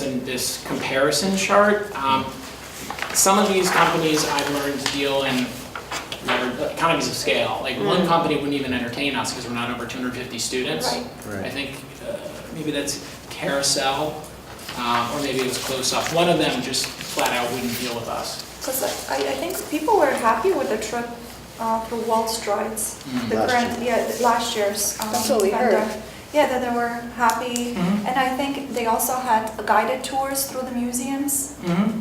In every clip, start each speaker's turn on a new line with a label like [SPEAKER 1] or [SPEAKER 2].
[SPEAKER 1] mentioned this comparison chart. Um, Some of these companies I've learned deal in lever- economies of scale. Like one company wouldn't even entertain us because we're not over 250 students.
[SPEAKER 2] Right.
[SPEAKER 1] I think uh, maybe that's Carousel, uh, or maybe it was Close Up. One of them just flat out wouldn't deal with us.
[SPEAKER 2] Because I, I think people were happy with the trip uh, to Wall Street, the
[SPEAKER 3] Last
[SPEAKER 2] grant, yeah, the- last year's. um,
[SPEAKER 4] That's what we heard.
[SPEAKER 2] vendor. Yeah, that they were happy,
[SPEAKER 1] Mhm.
[SPEAKER 2] and I think they also had guided tours through the museums, so,
[SPEAKER 1] Mm-hmm.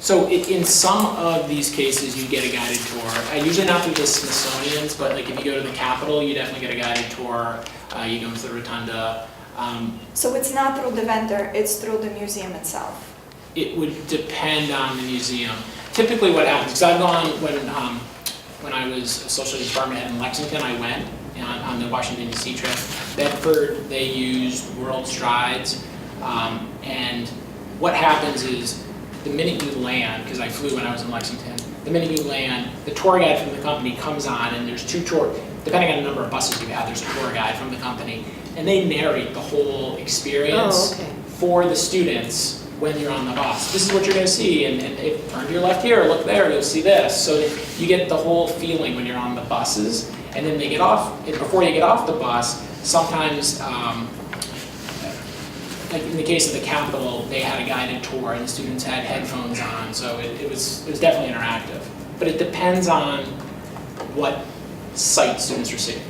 [SPEAKER 1] So i- in some of these cases, you get a guided tour. Uh, Usually not through the Smithsonian's, but like if you go to the Capitol, you definitely get a guided tour. Uh, You go into the Rotunda. Um,
[SPEAKER 2] so it's not through the vendor, it's through the museum itself.
[SPEAKER 1] It would depend on the museum. Typically what happens, because I've gone, when, um, when I was a social studies department head in Lexington, I went on on the Washington DC trip. Bedford, they used World Strides. Um, And what happens is, the minute you land, because I flew when I was in Lexington, the minute you land, the tour guide from the company comes on, and there's two tour, depending on the number of buses you have, there's a tour guide from the company, and they narrate the whole
[SPEAKER 4] Oh,
[SPEAKER 1] experience
[SPEAKER 4] okay.
[SPEAKER 1] for the students when you're on the bus. This is what you're gonna see, and, and if, turn to your left here, look there, you'll see this. So you get the whole feeling when you're on the buses, and then they get off, and before you get off the bus, sometimes, um, like in the case of the Capitol, they had a guided tour and the students had headphones on, so it, it was, it was definitely interactive. But it depends on what site students are seeing.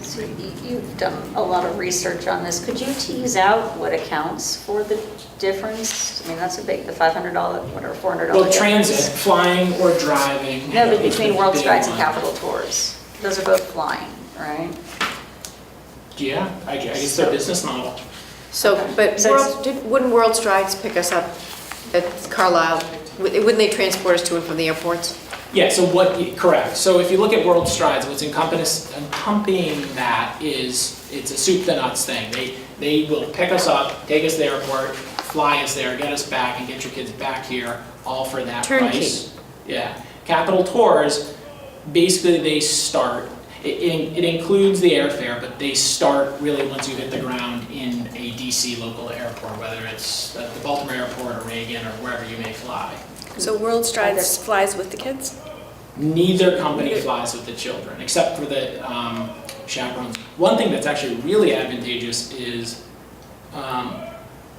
[SPEAKER 5] So y- you've done a lot of research on this. Could you tease out what accounts for the difference? I mean, that's a big, the $500, whatever, $400.
[SPEAKER 1] Well,
[SPEAKER 5] difference.
[SPEAKER 1] transit, flying or driving.
[SPEAKER 5] No, but
[SPEAKER 1] is
[SPEAKER 5] between
[SPEAKER 1] the
[SPEAKER 5] World
[SPEAKER 1] big
[SPEAKER 5] Strides and
[SPEAKER 1] one.
[SPEAKER 5] Capital Tours, those are both flying, right?
[SPEAKER 1] Yeah, I guess, I guess their business model.
[SPEAKER 4] So, but
[SPEAKER 5] So it's-
[SPEAKER 4] World, did- wouldn't World Strides pick us up at Carlisle? Wou- Wouldn't they transport us to and from the airports?
[SPEAKER 1] Yeah, so what, correct. So if you look at World Strides, what's encompass, encompassing that is, it's a soup to nuts thing. They, they will pick us up, take us to the airport, fly us there, get us back, and get your kids back here, all for that
[SPEAKER 4] Turnkey.
[SPEAKER 1] price. Yeah. Capital Tours, basically they start, it, it it includes the airfare, but they start really once you hit the ground in a DC local airport, whether it's at the Baltimore Airport or Reagan or wherever you may fly.
[SPEAKER 6] So World Strides flies with the kids?
[SPEAKER 1] Neither company flies with the children, except for the um, chaperones. One thing that's actually really advantageous is um,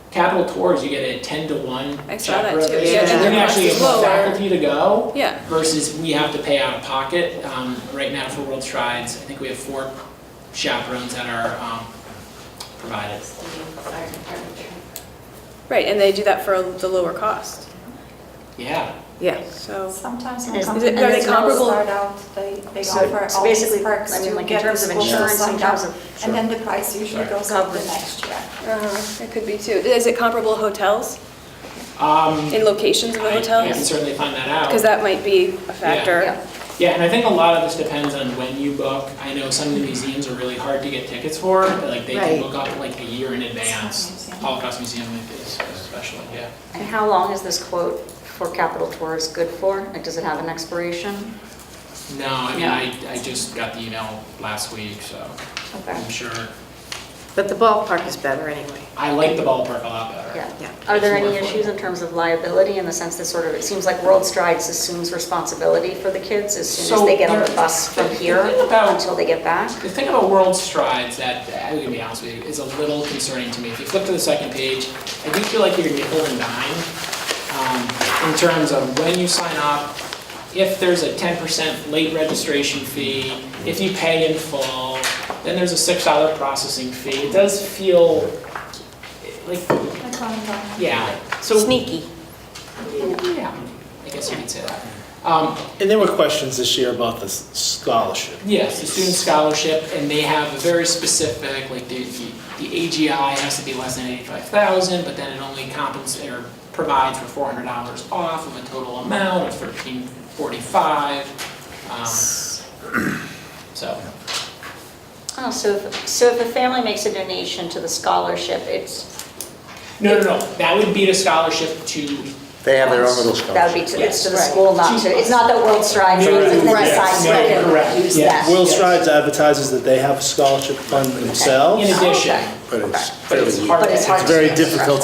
[SPEAKER 1] Capital Tours, you get a 10 to 1
[SPEAKER 6] I saw that
[SPEAKER 1] chaperone
[SPEAKER 6] too.
[SPEAKER 1] ratio,
[SPEAKER 4] Yeah,
[SPEAKER 1] and
[SPEAKER 4] the
[SPEAKER 1] then
[SPEAKER 6] cost
[SPEAKER 1] actually
[SPEAKER 6] is
[SPEAKER 1] have
[SPEAKER 6] lower.
[SPEAKER 1] faculty to go
[SPEAKER 6] Yeah.
[SPEAKER 1] versus we have to pay out of pocket. Um, right now for World Strides, I think we have four chaperones that are um, provided.
[SPEAKER 6] Right, and they do that for the lower cost,
[SPEAKER 1] Yeah.
[SPEAKER 4] Yeah.
[SPEAKER 6] so.
[SPEAKER 2] Sometimes
[SPEAKER 5] And
[SPEAKER 2] when
[SPEAKER 6] is it-
[SPEAKER 5] is-
[SPEAKER 2] companies
[SPEAKER 6] are they
[SPEAKER 2] will
[SPEAKER 6] comparable-
[SPEAKER 2] start out, they, they
[SPEAKER 5] So-
[SPEAKER 2] offer
[SPEAKER 5] so
[SPEAKER 2] all these
[SPEAKER 5] basically, I
[SPEAKER 2] perks
[SPEAKER 5] mean,
[SPEAKER 2] to
[SPEAKER 5] like in
[SPEAKER 2] get the
[SPEAKER 5] terms of
[SPEAKER 2] school to
[SPEAKER 5] insurance, in
[SPEAKER 2] sign up,
[SPEAKER 5] terms of-
[SPEAKER 2] and then the price usually
[SPEAKER 1] Sorry.
[SPEAKER 2] goes up the
[SPEAKER 5] Coverage.
[SPEAKER 2] next year.
[SPEAKER 6] It could be too. Is it comparable hotels,
[SPEAKER 1] Um,
[SPEAKER 6] in locations of the
[SPEAKER 1] I- I can
[SPEAKER 6] hotels?
[SPEAKER 1] certainly find that out.
[SPEAKER 6] Because that might be a
[SPEAKER 5] Yeah.
[SPEAKER 6] factor.
[SPEAKER 1] Yeah, and I think a lot of this depends on when you book. I know some of the
[SPEAKER 5] Mm-hmm.
[SPEAKER 1] museums are really hard to get tickets for, but, like they can
[SPEAKER 4] Right.
[SPEAKER 1] book up like a year in advance.
[SPEAKER 2] Museum.
[SPEAKER 1] Holocaust Museum is especially, yeah.
[SPEAKER 5] And how long is this quote for Capital Tours good for? Like, does it have an expiration?
[SPEAKER 1] No, I mean,
[SPEAKER 5] Yeah.
[SPEAKER 1] I, I just got the email last week, so
[SPEAKER 5] Okay,
[SPEAKER 1] I'm sure.
[SPEAKER 4] But the ballpark is better anyway.
[SPEAKER 1] I like the ballpark a lot better.
[SPEAKER 5] yeah.
[SPEAKER 4] Yeah.
[SPEAKER 5] Are there
[SPEAKER 1] It's
[SPEAKER 5] any
[SPEAKER 1] more fun.
[SPEAKER 5] issues in terms of liability in the sense that sort of, it seems like World Strides assumes responsibility for the kids as soon
[SPEAKER 1] So
[SPEAKER 5] as they get on the
[SPEAKER 1] there-
[SPEAKER 5] bus from
[SPEAKER 1] the
[SPEAKER 5] here
[SPEAKER 1] thing about-
[SPEAKER 5] until they get back?
[SPEAKER 1] The thing about World Strides that, I'm gonna be honest with you, is a little concerning to me. If you flip to the second page, I do feel like you're nickel and dime um, in terms of when you sign up, if there's a 10% late registration fee, if you pay in full, then there's a $6 processing fee. It does feel like,
[SPEAKER 2] Like, um,
[SPEAKER 1] yeah, so.
[SPEAKER 4] Sneaky.
[SPEAKER 1] Yeah, I guess you could say that. Um,
[SPEAKER 3] And there were questions this year about the s- scholarship.
[SPEAKER 1] Yes, the student scholarship, and they have a very specific, like the, the the AGI has to be less than eighty-five thousand, but then it only compensates, or provides for four hundred dollars off of a total amount of thirteen forty-five. um, So,
[SPEAKER 5] Oh, so, if- so if a family makes a donation to the scholarship, it's,
[SPEAKER 1] no, no, no, that would be a scholarship to,
[SPEAKER 3] They have their own little
[SPEAKER 5] that would be to, it's to the
[SPEAKER 4] Yes.
[SPEAKER 5] school, not to, it's not that World Strides,
[SPEAKER 1] Correct.
[SPEAKER 5] it's
[SPEAKER 4] Right.
[SPEAKER 1] Yeah,
[SPEAKER 5] that
[SPEAKER 1] correct.
[SPEAKER 5] side, use
[SPEAKER 1] Yeah.
[SPEAKER 5] that.
[SPEAKER 3] Will Strides advertises that they have a scholarship fund
[SPEAKER 1] in
[SPEAKER 3] themselves,
[SPEAKER 1] addition,
[SPEAKER 5] Okay.
[SPEAKER 3] but it's
[SPEAKER 1] but it's hard
[SPEAKER 5] But
[SPEAKER 1] to.
[SPEAKER 5] it's hard
[SPEAKER 3] it's very difficult